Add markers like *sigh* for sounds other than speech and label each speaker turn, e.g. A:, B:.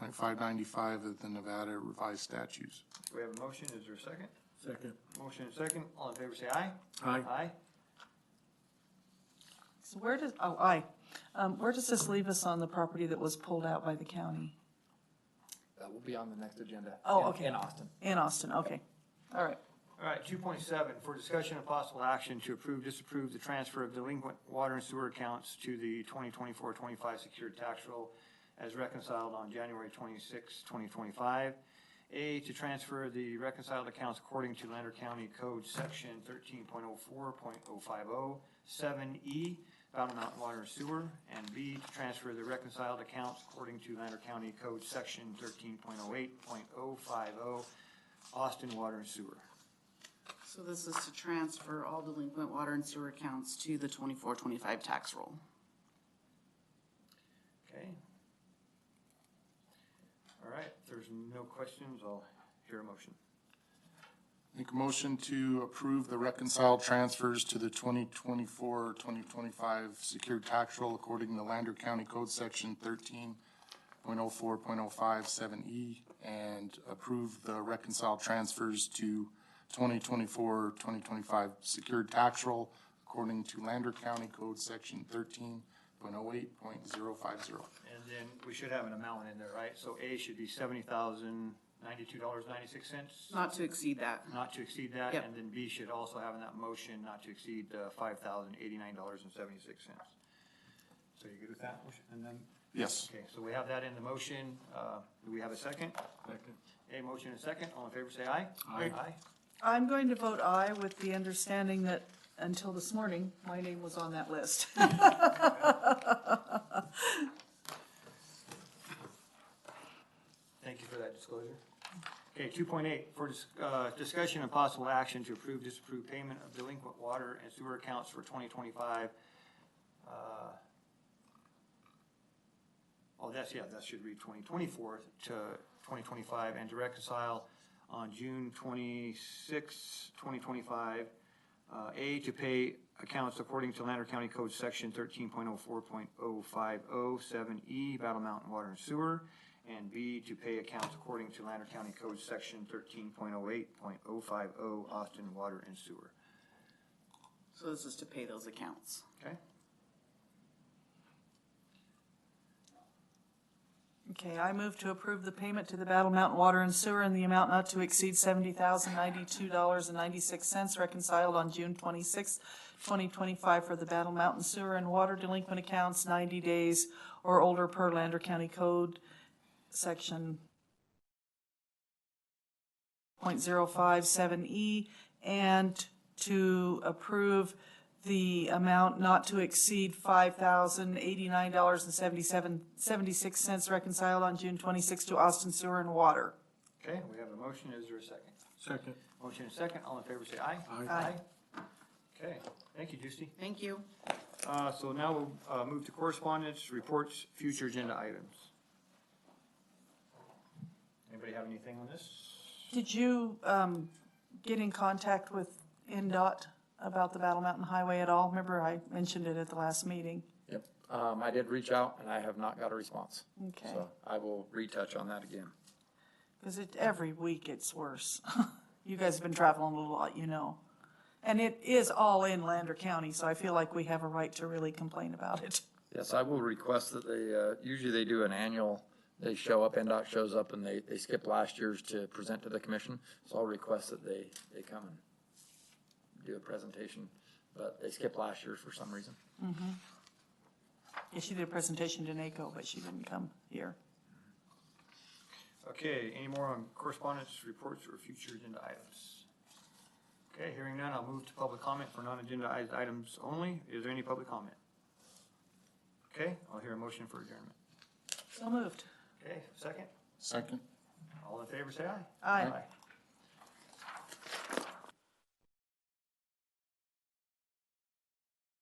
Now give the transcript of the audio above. A: like five ninety-five of the Nevada revised statutes.
B: We have a motion, is there a second?
C: Second.
B: Motion and second, all in favor say aye.
C: Aye.
B: Aye.
D: So where does, oh, aye. Um, where does this leave us on the property that was pulled out by the county?
E: That will be on the next agenda.
D: Oh,
E: in-
D: okay.
E: In Austin.
D: In Austin, okay. All right.
B: All right, two point seven, for discussion of possible action to approve, disapprove the transfer of delinquent water and sewer accounts to the 2024-25 secured tax roll as reconciled on January 26, twenty twenty-five. A, to transfer the reconciled accounts according to Lander County Code Section thirteen point oh four point oh five oh, seven E, Battle Mountain Water and Sewer, and B, to transfer the reconciled accounts according to Lander County Code Section thirteen point oh eight point oh five oh, Austin Water and Sewer.
F: So this is to transfer all delinquent water and sewer accounts to the twenty-four, twenty-five tax roll.
B: Okay. All right, if there's no questions, I'll hear a motion.
A: Make a motion to approve the reconciled transfers to the 2024-2025 secured tax roll according to Lander County Code Section thirteen point oh four point oh five seven E and approve the reconciled transfers to 2024-2025 secured tax roll according to Lander County Code Section thirteen point oh eight point zero five zero.
B: And then we should have an amount in there, right? So A should be seventy thousand ninety-two dollars ninety-six cents,
F: Not to exceed that.
B: not to exceed that.
F: Yep.
B: And then B should also have in that motion not to exceed uh, five thousand eighty-nine dollars and seventy-six cents. So you good with that? motion? And then,
A: Yes.
B: okay, so we have that in the motion. Uh, do we have a second? A motion and second. All in favor, say aye. Aye. Aye.
D: I'm going to vote aye with the understanding that until this morning, my name was on that
E: *laughs*
D: list.
B: Thank you for that disclosure. Okay, two point eight, for dis- uh, discussion and possible action to approve, disapprove payment of delinquent water and sewer accounts for twenty twenty-five. Oh, that's, yeah, that should read twenty twenty-four to twenty twenty-five and to reconcile on June twenty-sixth, twenty twenty-five. Uh, A, to pay accounts according to Lander County Code Section thirteen point oh four point oh five oh seven E, Battle Mountain Water and Sewer. And B, to pay accounts according to Lander County Code Section thirteen point oh eight point oh five oh, Austin Water and Sewer.
F: So this is to pay those accounts.
B: Okay?
D: Okay, I move to approve the payment to the Battle Mountain Water and Sewer in the amount not to exceed seventy thousand ninety-two dollars and ninety-six cents reconciled on June twenty-sixth, twenty twenty-five for the Battle Mountain Sewer and Water delinquent accounts ninety days or older per Lander County Code, section point zero five seven E, and to approve the amount not to exceed five thousand eighty-nine dollars and seventy-seven, seventy-six cents reconciled on June twenty-sixth to Austin Sewer and Water.
B: Okay, we have a motion. Is there a second?
C: Second.
B: Motion and second. All in favor, say aye.
D: Aye.
B: Okay. Thank you, Justy.
F: Thank you.
B: Uh, so now we'll, uh, move to correspondence, reports, future agenda items. Anybody have anything on this?
D: Did you, um, get in contact with NDOT about the Battle Mountain Highway at all? Remember, I mentioned it at the last meeting.
E: Yep. Um, I did reach out and I have not got a response.
D: Okay.
E: So I will retouch on that again.
D: Because it, every week it's worse. *laughs* You guys have been traveling a lot, you know. And it is all in Lander County, so I feel like we have a right to really complain about it.
E: Yes, I will request that they, uh, usually they do an annual, they show up, NDOT shows up and they, they skip last year's to present to the commission. So I'll request that they, they come and do a presentation, but they skipped last year's for some reason.
D: Yeah, she did a presentation to NACO, but she didn't come here.
B: Okay, any more on correspondence, reports, or future agenda items? Okay, hearing none, I'll move to public comment for non-agenda i- items only. Is there any public comment? Okay, I'll hear a motion for adjournment.
D: So moved.
B: Okay, second,
A: Second?
B: all in favor, say aye.
D: Aye.
B: Aye.